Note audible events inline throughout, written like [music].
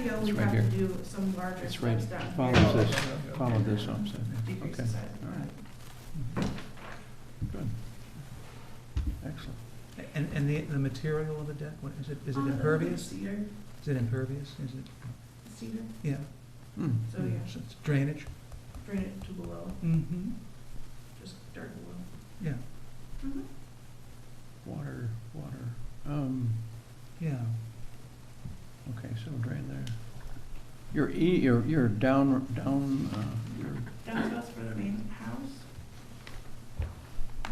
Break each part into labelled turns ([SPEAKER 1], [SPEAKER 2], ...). [SPEAKER 1] still, we
[SPEAKER 2] It's right
[SPEAKER 1] have to
[SPEAKER 2] here.
[SPEAKER 1] do some larger
[SPEAKER 2] It's right-
[SPEAKER 1] steps down.
[SPEAKER 2] follow
[SPEAKER 1] here.
[SPEAKER 2] this, Follow this up, so,
[SPEAKER 1] Decrease the
[SPEAKER 2] okay.
[SPEAKER 1] size.
[SPEAKER 2] all right. Good. Excellent.
[SPEAKER 3] And, and the, the material of the deck, what, is it, is it
[SPEAKER 1] Um,
[SPEAKER 3] impervious?
[SPEAKER 1] Cedar,
[SPEAKER 3] Is it impervious? Is it,
[SPEAKER 1] cedar,
[SPEAKER 3] yeah?
[SPEAKER 2] Hmm.
[SPEAKER 1] so
[SPEAKER 4] Oh,
[SPEAKER 1] yeah,
[SPEAKER 3] So it's Drainage?
[SPEAKER 1] drain it to below,
[SPEAKER 3] Mm-hmm.
[SPEAKER 1] just dirt below. Mm-hmm.
[SPEAKER 3] Yeah,
[SPEAKER 2] Water, water, um,
[SPEAKER 3] yeah.
[SPEAKER 2] okay, so drain there. Your E, your, your down, down, uh, your,
[SPEAKER 1] Downstairs for the main house.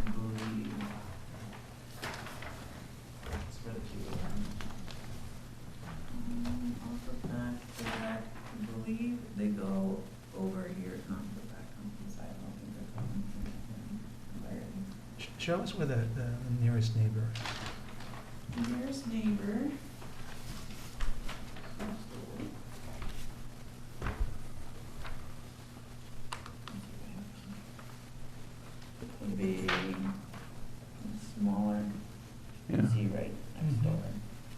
[SPEAKER 1] I believe. uh, That's for the Q one. Um, off the back, back, I believe they go over here, not the back, on the side, I don't think they're coming from there.
[SPEAKER 3] Sh- Show us where the, the the nearest neighbor,
[SPEAKER 1] Here's neighbor. Would be smaller, you can
[SPEAKER 2] yeah,
[SPEAKER 1] see right
[SPEAKER 3] Mm-hmm.
[SPEAKER 1] next door.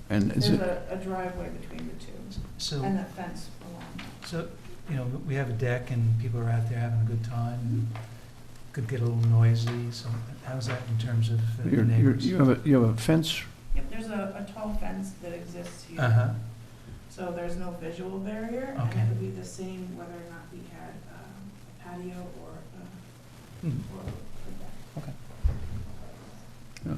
[SPEAKER 2] and is
[SPEAKER 1] There's
[SPEAKER 2] it,
[SPEAKER 1] a a driveway between the two, and
[SPEAKER 3] so,
[SPEAKER 1] that fence along.
[SPEAKER 3] so, you know, we have a deck and people are out there having a good time, and could get a little noisy, so how's that in terms of uh,
[SPEAKER 2] you're, you're,
[SPEAKER 3] neighbors?
[SPEAKER 2] you have a, you have a fence,
[SPEAKER 1] Yep, there's a, a tall fence that exists here.
[SPEAKER 3] Uh-huh,
[SPEAKER 1] So there's no visual barrier, and
[SPEAKER 3] Okay.
[SPEAKER 1] it would be the same whether or not we had um, a patio or a,
[SPEAKER 3] Mhm.
[SPEAKER 1] or a deck.
[SPEAKER 2] yeah.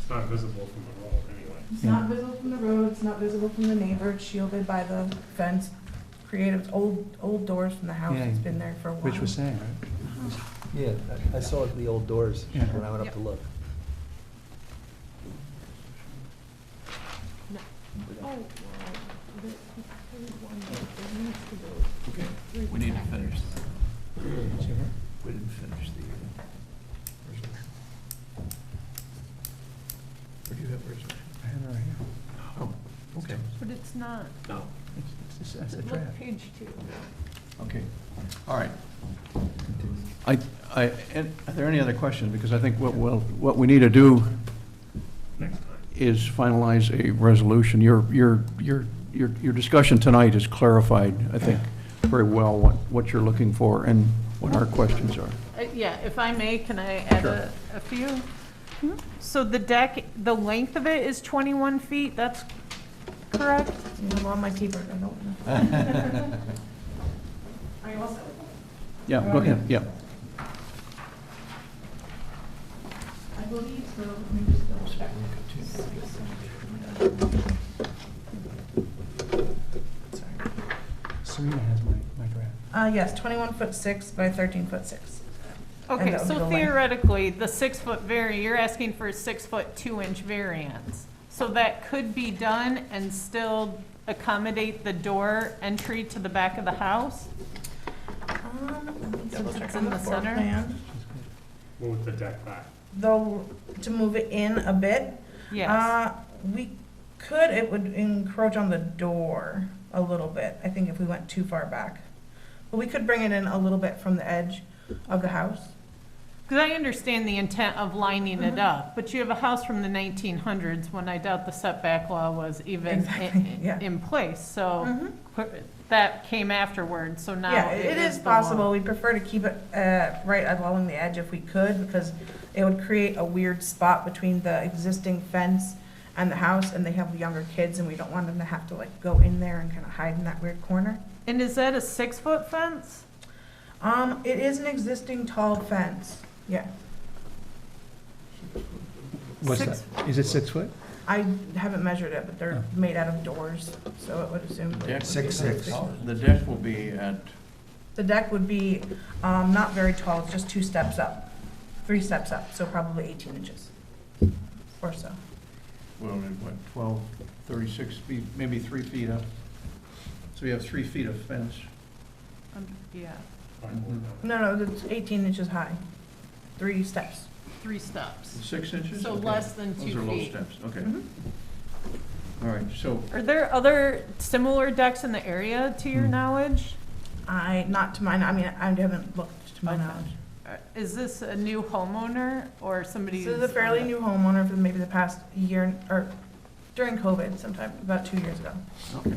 [SPEAKER 5] It's not visible from the road anyway.
[SPEAKER 1] It's
[SPEAKER 2] Yeah.
[SPEAKER 1] not visible from the road, it's not visible from the neighbor, it's shielded by the fence, created, it's old, old doors from the house,
[SPEAKER 2] Yeah.
[SPEAKER 1] it's been there for a while.
[SPEAKER 2] Rich was saying, right?
[SPEAKER 6] Yeah, I- I saw it in the old doors
[SPEAKER 2] Yeah.
[SPEAKER 6] when I went up to look.
[SPEAKER 2] We need to finish.
[SPEAKER 6] We didn't finish the. Where do you have resolution?
[SPEAKER 2] I had it right here.
[SPEAKER 6] Oh, okay.
[SPEAKER 4] But it's not,
[SPEAKER 6] No.
[SPEAKER 2] It's- it's just- That's the
[SPEAKER 4] look
[SPEAKER 2] draft.
[SPEAKER 4] page two.
[SPEAKER 2] Okay, all right. I, I, and are there any other questions? Because I think what, well, what we need to do
[SPEAKER 5] Next time.
[SPEAKER 2] is finalize a resolution. Your, your, your, your, your discussion tonight has clarified, I think, very well what, what you're looking for and what our questions are.
[SPEAKER 4] Uh, Yeah, if I may, can I add a, a few? So the deck, the length of it is 21 feet, that's correct?
[SPEAKER 1] I'm on my keyboard, I don't know.
[SPEAKER 2] [laughs]
[SPEAKER 1] [laughs] Are you all set with that?
[SPEAKER 2] Yeah, go ahead, yeah.
[SPEAKER 1] I believe so, let me just double check.
[SPEAKER 3] Serena has my, my draft.
[SPEAKER 1] Uh, yes, twenty-one foot six by thirteen foot six. that would be
[SPEAKER 4] Okay,
[SPEAKER 1] the
[SPEAKER 4] so
[SPEAKER 1] length.
[SPEAKER 4] theoretically, the six-foot vari, you're asking for a six-foot, two-inch variance. So that could be done and still accommodate the door entry to the back of the house?
[SPEAKER 1] Um, let me double
[SPEAKER 4] Since
[SPEAKER 1] check
[SPEAKER 4] it's
[SPEAKER 1] on
[SPEAKER 4] in
[SPEAKER 1] the
[SPEAKER 4] the
[SPEAKER 1] floor
[SPEAKER 4] center.
[SPEAKER 1] plan.
[SPEAKER 5] Move the deck back.
[SPEAKER 1] Though, to move it in a bit,
[SPEAKER 4] Yes.
[SPEAKER 1] Uh, we could, it would encroach on the door a little bit, I think if we went too far back. But we could bring it in a little bit from the edge of the house.
[SPEAKER 4] Because I understand the intent of lining it
[SPEAKER 1] Mhm.
[SPEAKER 4] up, but you have a house from the 1900s when I doubt the setback law was even
[SPEAKER 1] Exactly,
[SPEAKER 4] in-
[SPEAKER 1] yeah.
[SPEAKER 4] in in place, so
[SPEAKER 1] Mhm.
[SPEAKER 4] that came afterward, so Oh, now.
[SPEAKER 1] Yeah, it is
[SPEAKER 4] the
[SPEAKER 1] possible,
[SPEAKER 4] law.
[SPEAKER 1] we prefer to keep it, uh, right along the edge if we could, because it would create a weird spot between the existing fence and the house, and they have younger kids, and we don't want them to have to like go in there and kind of hide in that weird corner.
[SPEAKER 4] And is that a six-foot fence?
[SPEAKER 1] Um, it is an existing tall fence, yeah.
[SPEAKER 3] What's
[SPEAKER 4] Six-
[SPEAKER 3] that? Is it six foot?
[SPEAKER 1] I haven't measured it, but they're made out of doors, so it would assume.
[SPEAKER 6] Six, six.
[SPEAKER 2] The deck will be at,
[SPEAKER 1] The deck would be, um, not very tall, it's just two steps up, three steps up, so probably eighteen inches or so.
[SPEAKER 2] well, what, 12, 36 feet, maybe three feet up. So you have three feet of fence.
[SPEAKER 4] Um, Yeah,
[SPEAKER 5] Fine, we'll have it.
[SPEAKER 1] No, no, it's eighteen inches high, three steps.
[SPEAKER 4] three steps,
[SPEAKER 2] Six inches?
[SPEAKER 4] so
[SPEAKER 2] Okay.
[SPEAKER 4] less than
[SPEAKER 2] Those are
[SPEAKER 4] two
[SPEAKER 2] low
[SPEAKER 4] feet.
[SPEAKER 2] steps, okay.
[SPEAKER 1] Mhm.
[SPEAKER 2] All right, so
[SPEAKER 4] Are there other similar decks in the area, to your
[SPEAKER 2] Hmm.
[SPEAKER 4] knowledge?
[SPEAKER 1] I, not to mine, I mean, I haven't looked to my
[SPEAKER 4] Okay.
[SPEAKER 1] knowledge.
[SPEAKER 4] Uh, Is this a new homeowner or somebody?
[SPEAKER 1] This is a
[SPEAKER 4] who's-
[SPEAKER 1] fairly new homeowner for maybe the past year, or during COVID sometime, about two years ago.
[SPEAKER 2] Okay.